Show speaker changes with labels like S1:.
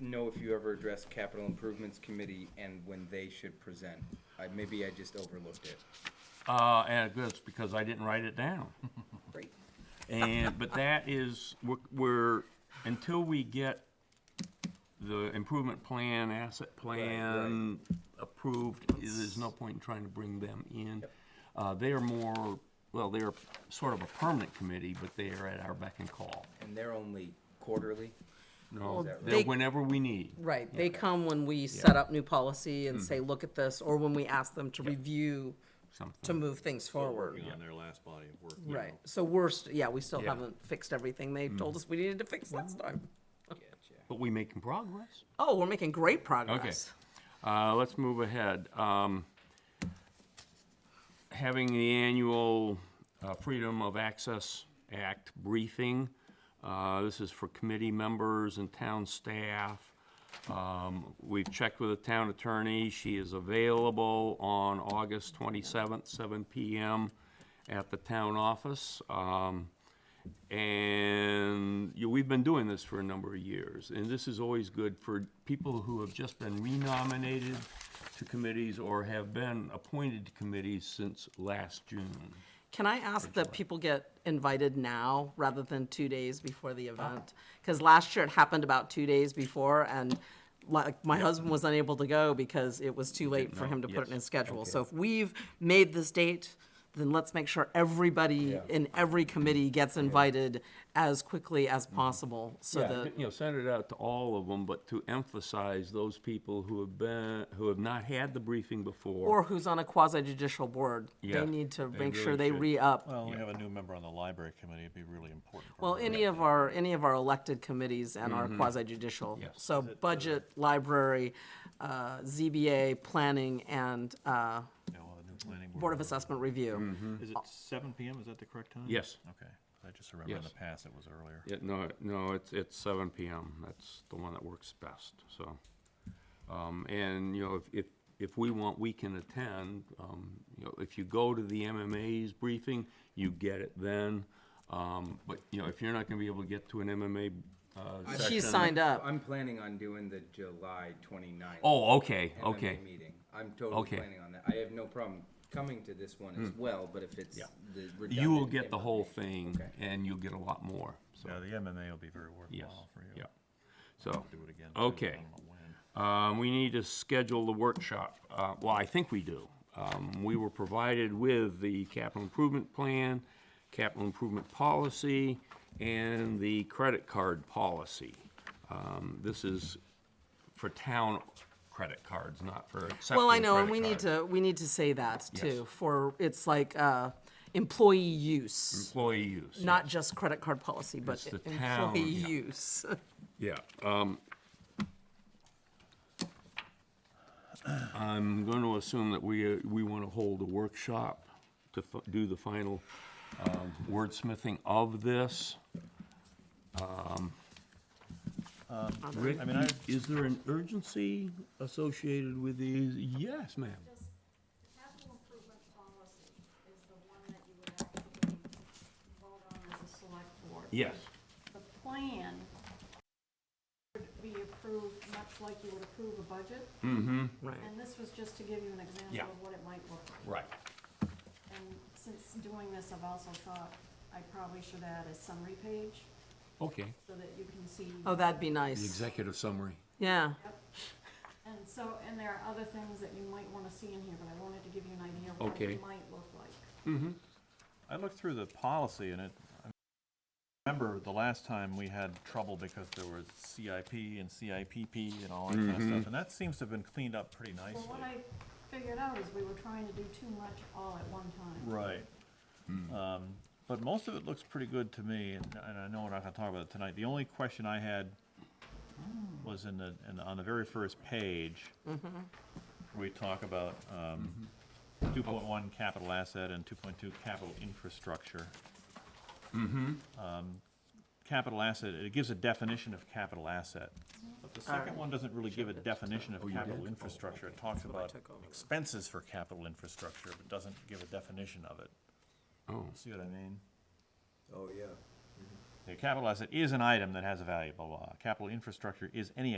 S1: know if you ever addressed capital improvements committee and when they should present. I, maybe I just overlooked it.
S2: Uh, and that's because I didn't write it down.
S1: Great.
S2: And, but that is, we're, we're, until we get the improvement plan, asset plan approved, i- there's no point in trying to bring them in. Uh, they are more, well, they're sort of a permanent committee, but they are at our beck and call.
S1: And they're only quarterly?
S2: No,
S1: Is that
S2: they're
S3: right?
S2: whenever we need.
S3: Right, they come when we set up new policy
S2: Mm-hmm.
S3: and say, look at this, or when we ask them to review, to
S2: Something.
S3: move things forward.
S4: working on their last body of work. you
S3: Right,
S4: know.
S3: so we're, st- yeah, we still
S2: Yeah. Mm-hmm.
S3: haven't fixed everything they told us we needed to fix last time.
S2: But we making progress.
S3: Oh, we're making great
S2: Okay.
S3: progress.
S2: Uh, let's move ahead. Um, having the annual uh, Freedom of Access Act briefing. Uh, this is for committee members and town staff. Um, we've checked with the town attorney. She is available on August twenty-seventh, seven PM at the town office. Um, and you know, we've been doing this for a number of years, and this is always good for people who have just been renominated to committees or have been appointed to committees since last June.
S3: Can I ask that people get invited now rather than two days before the event? Because last year it happened about two days before and like, my husband was unable to go because it was too late for
S2: know.
S3: him to put it in
S2: Yes.
S3: his schedule. So if we've made this date, then let's make sure everybody in every committee gets invited as quickly as
S2: Mm-hmm.
S3: possible so that,
S2: You know, send it out to all of them, but to emphasize those people who have been, who have not had the briefing
S3: or
S2: before.
S3: who's on a quasi judicial board,
S2: Yeah,
S3: they need to
S2: they
S3: make sure
S2: really
S3: they
S2: should. Uh,
S3: re-up.
S4: Well, we have a new member on the library committee, it'd be really important. for
S3: Well,
S4: her.
S3: any of our, any of our elected committees and our quasi judicial.
S2: Mm-hmm. Yes. uh,
S3: So budget, library, uh, ZBA, planning, and uh,
S4: Yeah, we'll have a new planning
S3: Board of
S4: member.
S3: Assessment Review.
S2: Mm-hmm.
S4: Is it seven PM, is that the correct time?
S2: Yes.
S4: Okay, I just remember in the
S2: Yes.
S4: past it was earlier.
S2: Yeah, no, no, it's, it's seven PM. That's the one that works best, so. Um, and, you know, if, if, if we want, we can attend. Um, you know, if you go to the MMA's briefing, you get it then. Um, but, you know, if you're not gonna be able to get to an MMA, uh, session.
S3: She signed up.
S1: I'm planning on doing the July twenty-ninth.
S2: Oh, okay, okay.
S1: Meeting. I'm totally
S2: Okay. Hmm.
S1: planning on that. I have no problem coming to this one as well, but if it's the
S2: You will
S1: redundant
S2: get the whole
S1: information.
S2: thing
S1: Okay.
S2: and you'll get a lot more, so,
S4: Yeah, the MMA will be very
S2: yes,
S4: worthwhile for you.
S2: yeah. So,
S4: Do it again. too,
S2: Okay.
S4: I don't know when.
S2: Um, we need to schedule the workshop. Uh, well, I think we do. Um, we were provided with the capital improvement plan, capital improvement policy, and the credit card policy. Um, this is for town credit cards, not for accepting
S3: Well, I know, and
S2: credit
S3: we need
S2: cards.
S3: to, we need to say that
S2: Yes.
S3: too, for, it's like uh, employee use,
S2: Employee use.
S3: not just credit card policy, but
S2: Mm, It's the town,
S3: employee
S2: yeah.
S3: use.
S2: Yeah, um. I'm gonna assume that we, uh, we wanna hold a workshop to fi- do the final, um, wordsmithing of this. Um, Rick,
S4: I mean, I-
S2: is there an urgency associated with these? Yes, ma'am.
S5: Just, the capital improvement policy is the one that you would actually vote on as a select board.
S2: Yes.
S5: The plan would be approved much like you would approve a budget,
S3: Right.
S5: and this was just to give you an
S2: Hmm. Yeah.
S5: example of what it might look like.
S2: Right.
S5: And since doing this, I've also thought I probably should add a summary page
S2: Okay.
S5: so that you can see.
S3: Oh, that'd be nice.
S2: executive summary.
S3: Yeah,
S5: And so, and there are other things that you might wanna see in here, but I wanted to give you an idea of what
S2: Okay.
S5: it might look like.
S4: I looked through the policy and it, I remember the last time we had trouble because there was CIP and CIPP and all that kind of
S2: Mm-hmm.
S4: stuff, and that seems to have been cleaned up pretty nicely.
S5: Well, what I figured out is we were trying to do too much all at one time.
S4: Right. Um, But most of it looks pretty good to me, and and I know we're not gonna talk about it tonight. The only question I had was in the, in the- on the very first page.
S3: Mm-hmm.
S4: We talk about um, two point one capital asset and two point two capital infrastructure. Um, Capital asset, it gives a definition of capital asset, but the second one doesn't really give a definition of capital infrastructure. It talks about
S3: took over.
S4: expenses for capital infrastructure, but doesn't give a definition of it.
S2: Oh.
S4: See what I mean?
S1: Oh, yeah.
S4: The capital asset is an item that has a value, blah, blah, blah. Capital infrastructure is any